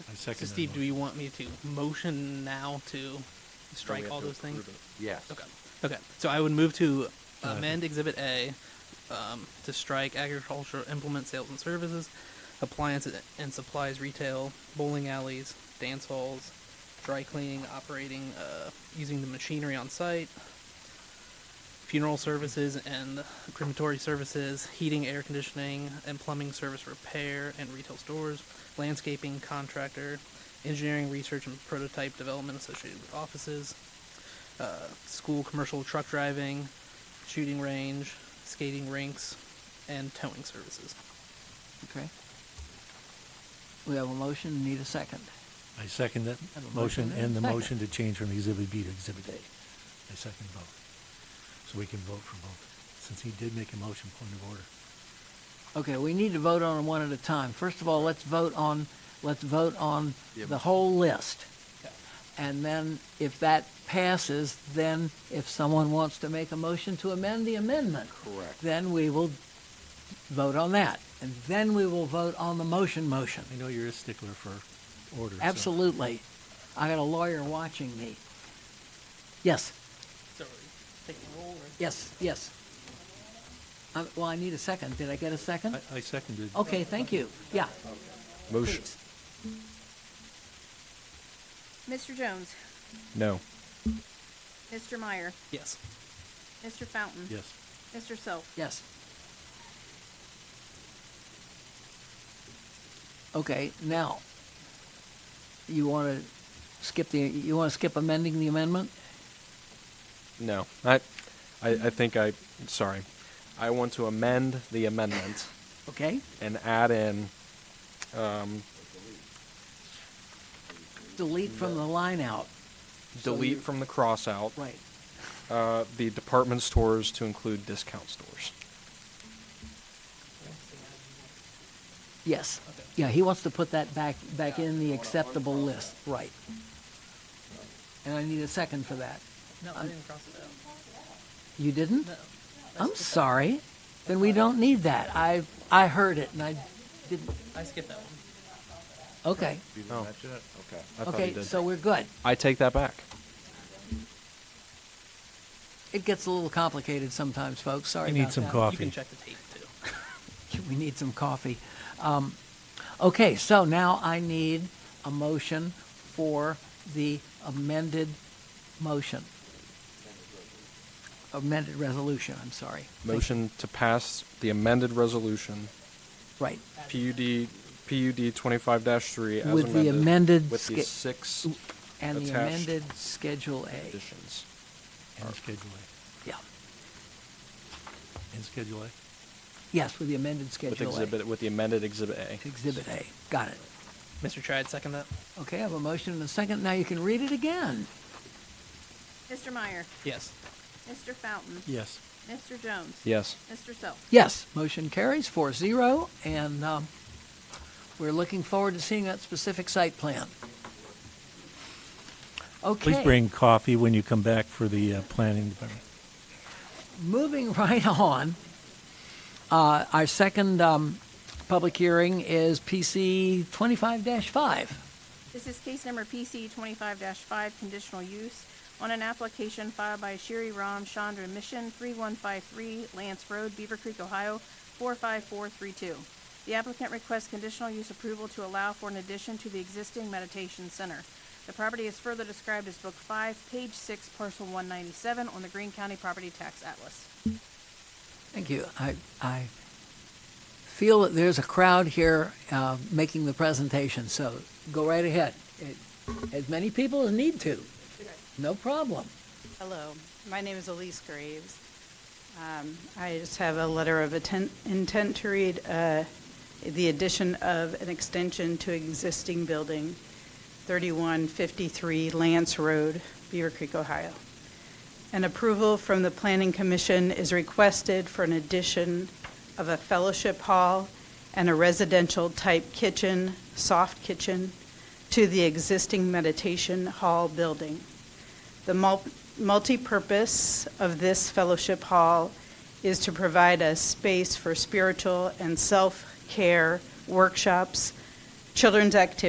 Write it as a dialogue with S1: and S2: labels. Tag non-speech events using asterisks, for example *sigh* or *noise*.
S1: I
S2: So
S1: second that
S2: Steve, do
S1: motion.
S2: you want me to motion now to
S3: we
S2: strike
S3: have
S2: all
S3: to
S2: those things?
S3: approve it. Yes.
S2: Okay. Okay. So I would move to
S1: Uh,
S2: amend Exhibit A um, to strike agricultural implement sales and services, appliance and supplies retail, bowling alleys, dance halls, dry cleaning, operating, uh, using the machinery on site, funeral services and crematory services, heating, air conditioning, and plumbing service repair and retail stores, landscaping contractor, engineering research and prototype development associated with offices, uh, school commercial truck driving, shooting range, skating rinks, and towing services.
S4: Okay. We have a motion, need a second.
S1: I second that
S4: Have a
S1: motion
S4: motion and a
S1: and the
S4: second.
S1: motion to change from Exhibit B to Exhibit A. I second both. So we can vote for both, since he did make a motion, point of order.
S4: Okay, we need to vote on them one at a time. First of all, let's vote on, let's vote on
S3: Yeah.
S4: the whole list.
S2: Okay.
S4: And then if that passes, then if someone wants to make a motion to amend the amendment,
S3: Correct.
S4: then we will vote on that. And then we will vote on the motion motion.
S1: I know you're a stickler for order. so-
S4: Absolutely. I got a lawyer watching me. Yes,
S2: So are we taking roll or?
S4: yes, yes. Uh, Well, I need a second. Did I get a second?
S1: I, I seconded.
S4: Okay, thank you. Yeah,
S3: Motion.
S4: please.
S5: Mr. Jones,
S3: No.
S5: Mr. Meyer,
S2: Yes.
S5: Mr. Fountain,
S1: Yes.
S5: Mr. Self,
S4: Yes. Okay, now, you want to skip the, you want to skip amending the amendment?
S3: No. I, I, I think I. Sorry. I want to amend the amendment
S4: Okay,
S3: and add in.
S4: delete from the line out.
S3: delete from the cross out
S4: Right.
S3: uh, the department stores to include discount stores.
S4: Yes. Yeah, he wants to put that back, back in the acceptable list, right. And I need a second for that.
S2: No, I didn't cross it out.
S4: You didn't?
S2: No.
S4: I'm sorry. Then we don't need that. I, I heard it and I didn't,
S2: I skipped that one.
S4: okay.
S3: Oh. Okay. I thought he
S4: Okay,
S3: did.
S4: so we're good.
S3: I take that back.
S4: It gets a little complicated sometimes, folks. Sorry
S1: You
S4: about
S1: need some
S4: that.
S2: You
S1: coffee.
S2: can check the tape too.
S4: We need some coffee. Um, okay, so now I need a motion for the amended motion. Amended resolution, I'm sorry.
S3: Motion to pass the amended resolution
S4: Right.
S3: PUD PUD 25-3 as
S4: With
S3: amended,
S4: the amended
S3: with the
S4: sca-
S3: six
S4: And the
S3: Attached.
S4: amended Schedule A.
S3: additions.
S1: And Schedule A.
S4: Yeah.
S1: And Schedule A.
S4: Yes, with the amended
S3: With
S4: Schedule A.
S3: exhibit with the amended exhibit A.
S4: Exhibit A. Got it.
S2: Mr. Chad, second that?
S4: Okay, I have a motion and a second. Now you can read it again.
S5: Mr. Meyer,
S2: Yes.
S5: Mr. Fountain,
S1: Yes.
S5: Mr. Jones,
S3: Yes.
S5: Mr. Self.
S4: Yes, motion carries 4-0, and um, we're looking forward to seeing that specific site plan. Okay.
S1: Please bring coffee when you come back for the uh, planning department.
S4: Moving *laughs* right on, uh, our second um, public hearing is PC 25-5.
S5: This is case number PC twenty-five five, conditional use on an application filed by Sherry Ram Chandra Mission, three-one-five-three Lance Road, Beaver Creek, Ohio, four-five-four-three-two. The applicant requests conditional use approval to allow for an addition to the existing meditation center. The property is further described as Book Five, Page Six, Parcel one ninety-seven on the Greene County Property Tax Atlas.
S4: Thank you. I, I feel that there's a crowd here uh, making the presentation, so go right ahead. It- As many people as need to, no problem.
S6: Hello, my name is Elise Graves. Um, I just have a letter of atten- intent to read uh, the addition of an extension to existing building, 3153 Lance Road, Beaver Creek, Ohio. An approval from the Planning Commission is requested for an addition of a fellowship hall and a residential-type kitchen, soft kitchen, to the existing meditation hall building. The mul- multi-purpose of this fellowship hall is to provide a space for spiritual and self-care workshops, children's activities.